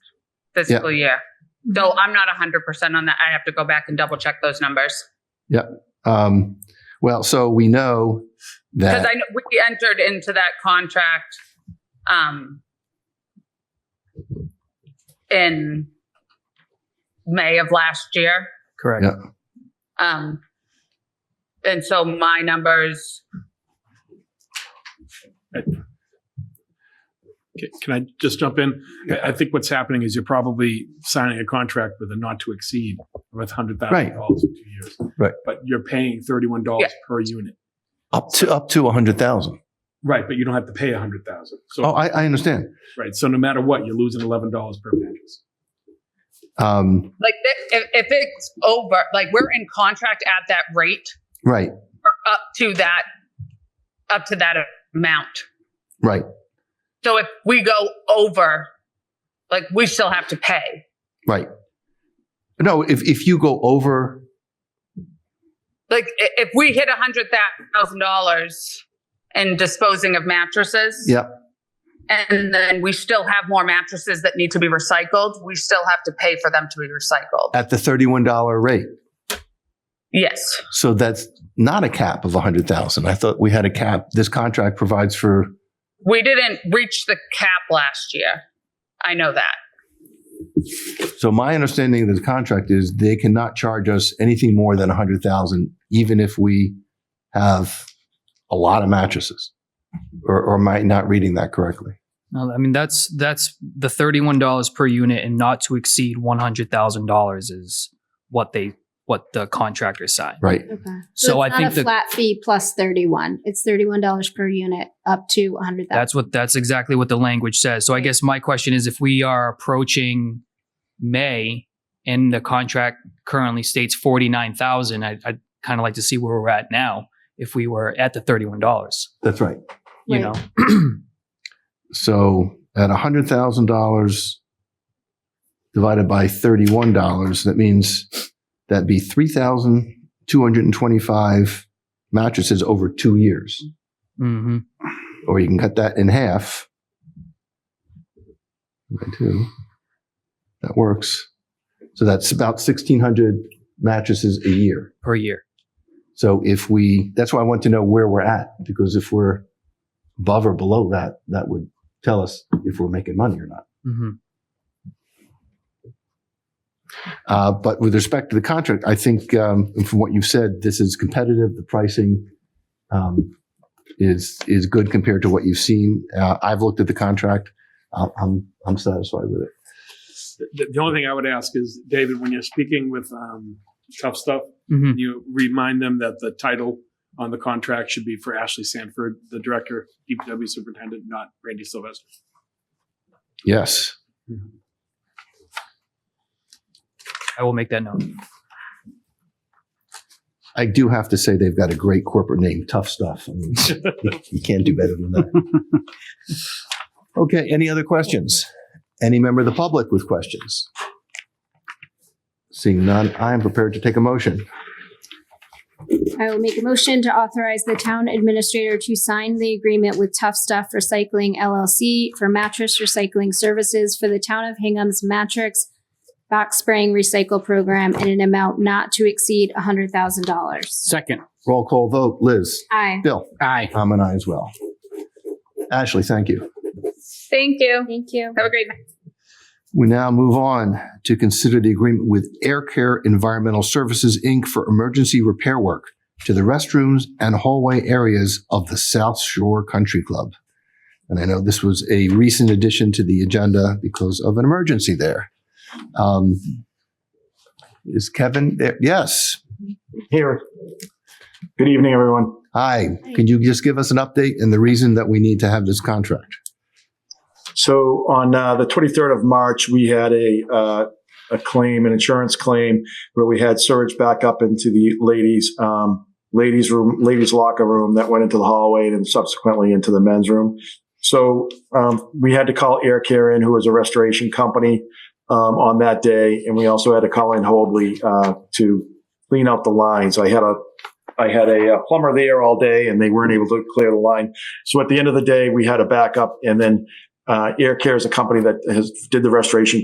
this fiscal year. Though I'm not 100% on that. I have to go back and double check those numbers. Um, well, so we know Because that I know we entered into that contract um, in May of last year. Correct. Yeah. Um, and so my numbers, Okay, Can I just jump in? I, I think what's happening is you're probably signing a contract with a not to exceed with hundred Right. thousand dollars in two years. Right. But you're paying thirty-one dollars Yeah. per unit. Up to, up to a hundred thousand. Right, but you don't have to pay a hundred thousand. oh, So, I, I understand. right, so no matter what, you're losing eleven dollars per mattress. Um, like thi- if, if it's over, like we're in contract at that rate right, or up to that, up to that amount. right, So if we go over, like we still have to pay. right. No, if, if you go over, Like i- if we hit a hundred thousand dollars in disposing of mattresses. Yep. And then we still have more mattresses that need to be recycled. We still have to pay for them to be recycled. at the $31 rate. Yes. So that's not a cap of 100,000. I thought we had a cap. This contract provides for We didn't reach the cap last year. I know that. So my understanding of the contract is they cannot charge us anything more than a hundred thousand, even if we have a lot of mattresses. Or, or am I not reading that correctly? No, I mean that's that's the thirty-one dollars per unit, and not to exceed one hundred thousand dollars is what they what the contractor signed. Right. Okay. So I it's think not a the- flat fee plus 31. It's $31 per unit up to 100,000. That's what that's exactly what the language says. So I Right. guess my question is, if we are approaching May and the contract currently states forty-nine thousand, I, I'd kind of like to see where we're at now. If we were at the thirty-one dollars, That's right. you Right. know, So at a hundred thousand dollars divided by thirty-one dollars, that means that'd be three thousand two hundred and twenty-five mattresses over two years. hmm or you can cut that in half by two. That works. So that's about 1,600 mattresses a year. per year. So if we, that's why I want to know where we're at, because if we're above or below that, that would tell us if we're making money or not. hmm Uh, but with respect to the contract, I think um, from what you've said, this is competitive. The pricing um, is is good compared to what you've seen. Uh, I've looked at the contract. I'm I'm, I'm satisfied with it. The, the- the only thing I would ask is, David, when you're speaking with, um, tough stuff, hmm you remind them that the title on the contract should be for Ashley Sanford, the director, DPW superintendent, not Randy Sylvester. Yes. I will make that note. I do have to say they've got a great corporate name, Tough Stuff. I mean, you can't do better than that. Okay, any other questions? Any member of the public with questions? Seeing none, I am prepared to take a motion. I will make a motion to authorize the town administrator to sign the agreement with Tough Stuff Recycling LLC for mattress recycling services for the town of Hingham's mattress box spraying recycle program in an amount not to exceed $100,000. Second, Roll call vote, Liz. Aye. Bill. aye. I'm an I as well. Ashley, thank you. Thank you. Thank you. Have a great night. We now move on to consider the agreement with Air Care Environmental Services, Inc. for emergency repair work to the restrooms and hallway areas of the South Shore Country Club. And I know this was a recent addition to the agenda because of an emergency there. Um, Is Kevin there? Yes. Here. Good evening, everyone. Hi. Could you just give us an update and the reason that we need to have this contract? So on uh, the 23rd of March, we had a uh, a claim, an insurance claim, where we had surge back up into the ladies um, ladies room, ladies locker room that went into the hallway and subsequently into the men's room. So um, we had to call Air Care in, who was a restoration company, um, on that day, and we also had to call in Hobley uh, to clean out the line. So I had a I had a uh, plumber there all day, and they weren't able to clear the line. So at the end of the day, we had a backup, and then uh, Air Care is a company that has did the restoration